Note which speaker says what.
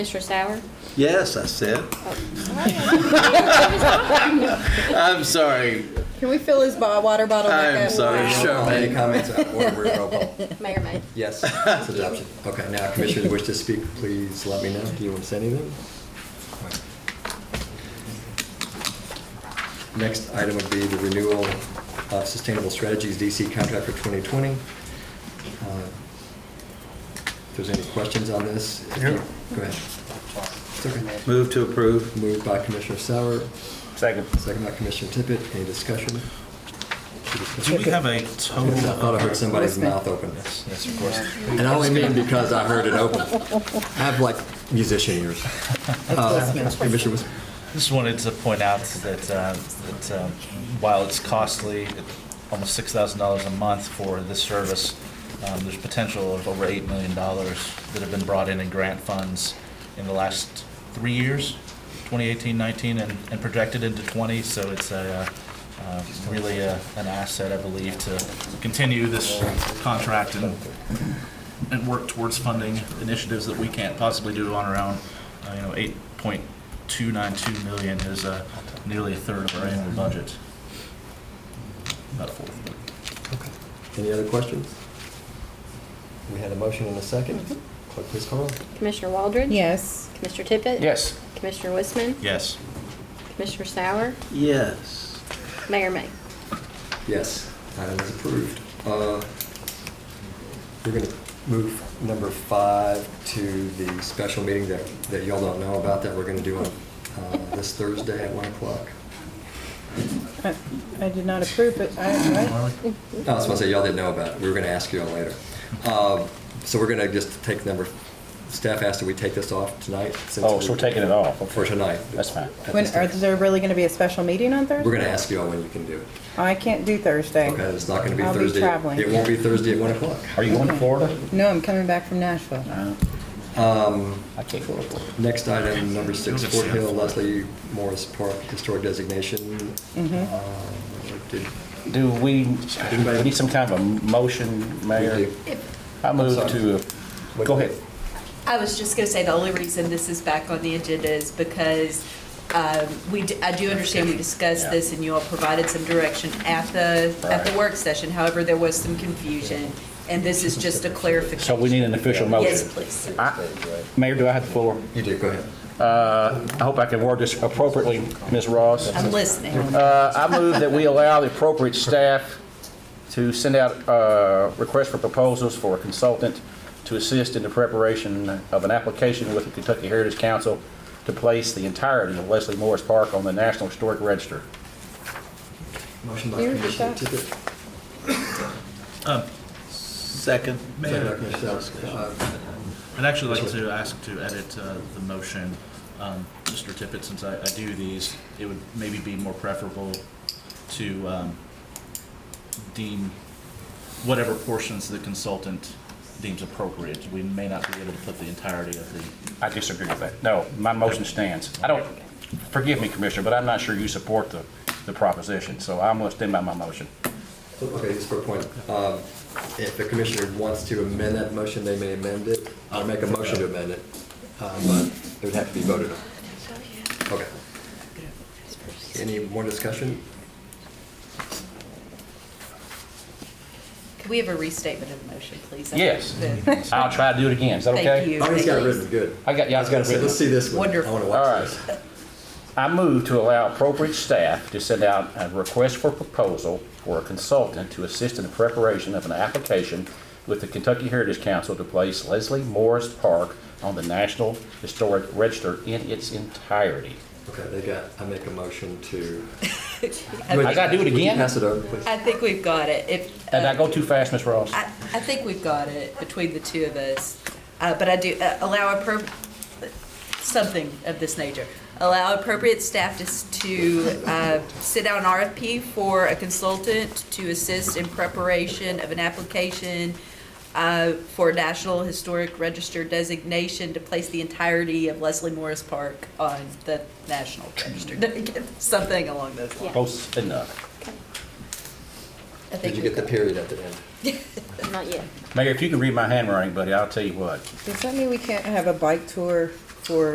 Speaker 1: Mr. Sauer?
Speaker 2: Yes, I said. I'm sorry.
Speaker 3: Can we fill his bo- water bottle back
Speaker 2: I'm
Speaker 3: up?
Speaker 2: sorry,
Speaker 4: I'll make
Speaker 2: Charmaine.
Speaker 4: comments, uh, order, we're roll call.
Speaker 1: Mayor May.
Speaker 4: Yes, it's adoption. Okay, now if commissioners wish to speak, please let me know. Do you want to say anything? Next item would be the renewal of Sustainable Strategies DC contract for 2020. Uh, If there's any questions on this? if you-
Speaker 5: Yeah.
Speaker 4: Go ahead. It's okay.
Speaker 2: Move to approve.
Speaker 4: Moved by Commissioner Sauer,
Speaker 5: Second.
Speaker 4: second by Commissioner Tippett. Any discussion?
Speaker 6: Do we have a
Speaker 4: I
Speaker 6: total?
Speaker 4: thought I heard somebody's mouth open.
Speaker 6: Yes, of course.
Speaker 4: And I only mean because I heard it open. I have like musician ears. Uh, Commissioner Wis-
Speaker 6: Just wanted to point out that, uh, that um, while it's costly, at almost $6,000 a month for this service, um, there's potential of over $8 million that have been brought in in grant funds in the last three years, 2018, 19, and and projected into 20, so it's a, uh, uh, really a- an asset, I believe, to continue this contract and, and work towards funding initiatives that we can't possibly do on our own. Uh, You know, 8.292 million is uh, nearly a third of our annual budget. About a fourth.
Speaker 4: Any other questions? We had a motion and a second. Clerk, please call.
Speaker 1: Commissioner Waldron?
Speaker 3: Yes.
Speaker 1: Commissioner Tippett?
Speaker 5: Yes.
Speaker 1: Commissioner Wiseman?
Speaker 6: Yes.
Speaker 1: Commissioner Sauer?
Speaker 2: Yes.
Speaker 1: Mayor May.
Speaker 4: Yes, item is approved. Uh, We're going to move number five to the special meeting that, that y'all don't know about that we're going to do on uh, this Thursday at 1 o'clock.
Speaker 3: I I did not approve, but I, I-
Speaker 4: I was going to say, y'all didn't know about it. We were going to ask y'all later. Um, So we're going to just take number, staff asked that we take this off tonight. since
Speaker 5: Oh,
Speaker 4: we-
Speaker 5: so we're taking it off.
Speaker 4: For tonight.
Speaker 5: That's fine.
Speaker 4: At
Speaker 3: when,
Speaker 4: this
Speaker 3: are
Speaker 4: time.
Speaker 3: there really going to be a special meeting on Thursday?
Speaker 4: We're going to ask y'all when you can do it.
Speaker 3: I can't do Thursday.
Speaker 4: Okay, it's not going to be
Speaker 3: I'll be
Speaker 4: Thursday.
Speaker 3: traveling.
Speaker 4: It won't be Thursday at 1 o'clock.
Speaker 5: Are you going to Florida?
Speaker 3: No, I'm coming back from Nashville.
Speaker 5: Uh,
Speaker 4: Um,
Speaker 5: I can't go to Florida.
Speaker 4: Next item, number six,
Speaker 6: You'll get
Speaker 4: Fort
Speaker 6: to see
Speaker 4: Hill,
Speaker 6: it.
Speaker 4: Leslie Morris Park Historic Designation.
Speaker 3: Mhm.
Speaker 4: Um, did-
Speaker 5: Do we, we need some kind of a motion, Mayor? I move to, go ahead.
Speaker 7: I was just going to say, the only reason this is back on the agenda is because um, we, d- I do understand we discussed this and you all provided some direction at the, at the
Speaker 5: Right.
Speaker 7: work session. However, there was some confusion, and this is just a clarification.
Speaker 5: So we need an official motion.
Speaker 7: Yes, please.
Speaker 5: I- Mayor, do I have the floor?
Speaker 4: You did, go ahead.
Speaker 5: I hope I can word this appropriately, Ms. Ross.
Speaker 7: I'm listening.
Speaker 5: Uh, I move that we allow the appropriate staff to send out uh, requests for proposals for a consultant to assist in the preparation of an application with the Kentucky Heritage Council to place the entirety of Leslie Morris Park on the National Historic Register.
Speaker 4: Motion by
Speaker 3: Here,
Speaker 4: Commissioner
Speaker 3: Scott.
Speaker 4: Tippett.
Speaker 2: Second.
Speaker 4: second by
Speaker 6: Mayor,
Speaker 4: Commissioner Salzman. Uh,
Speaker 6: I'd actually like to ask to edit uh, the motion. Um, Mr. Tippett, since I I do these, it would maybe be more preferable to um, deem whatever portions the consultant deems appropriate. We may not be able to put the entirety of the,
Speaker 5: I disagree with that. No, my motion stands. I don't, forgive me, Commissioner, but I'm not sure you support the, the proposition, so I'm going to stand by my motion.
Speaker 4: Okay, just for a point, uh, if the commissioner wants to amend that motion, they may amend it, or make a motion to amend it, uh, but it would have to be voted on. Okay. Any more discussion?
Speaker 7: Can we have a restatement of the motion, please?
Speaker 5: Yes.
Speaker 7: The-
Speaker 5: I'll try to do it again. Is that okay?
Speaker 7: Thank you.
Speaker 4: I already got it written, good.
Speaker 5: I got- yeah,
Speaker 4: I was gonna say, let's see this one. I
Speaker 7: Wonderful.
Speaker 4: wanna
Speaker 5: All
Speaker 4: watch
Speaker 5: right.
Speaker 4: this.
Speaker 5: I move to allow appropriate staff to send out a request for proposal for a consultant to assist in the preparation of an application with the Kentucky Heritage Council to place Leslie Morris Park on the National Historic Register in its entirety.
Speaker 4: Okay, they got, I make a motion to.
Speaker 5: I gotta do it
Speaker 4: Would you
Speaker 5: again?
Speaker 4: Pass it over, please.
Speaker 7: I think we've got it. If,
Speaker 5: Did I
Speaker 7: uh,
Speaker 5: go too fast, Ms. Ross?
Speaker 7: I, I think we've got it between the two of us, Uh, but I do uh, allow appro, something of this nature. Allow appropriate staff to, s- to uh, sit down an RFP for a consultant to assist in preparation of an application uh, for National Historic Register designation to place the entirety of Leslie Morris Park on the National Register, something along those lines.
Speaker 5: Close enough.
Speaker 7: I
Speaker 4: Did
Speaker 7: think
Speaker 4: you
Speaker 7: we
Speaker 4: get the period at the end?
Speaker 1: Not yet.
Speaker 5: Mayor, if you can read my handwriting, buddy, I'll tell you what.
Speaker 3: Does that mean we can't have a bike tour for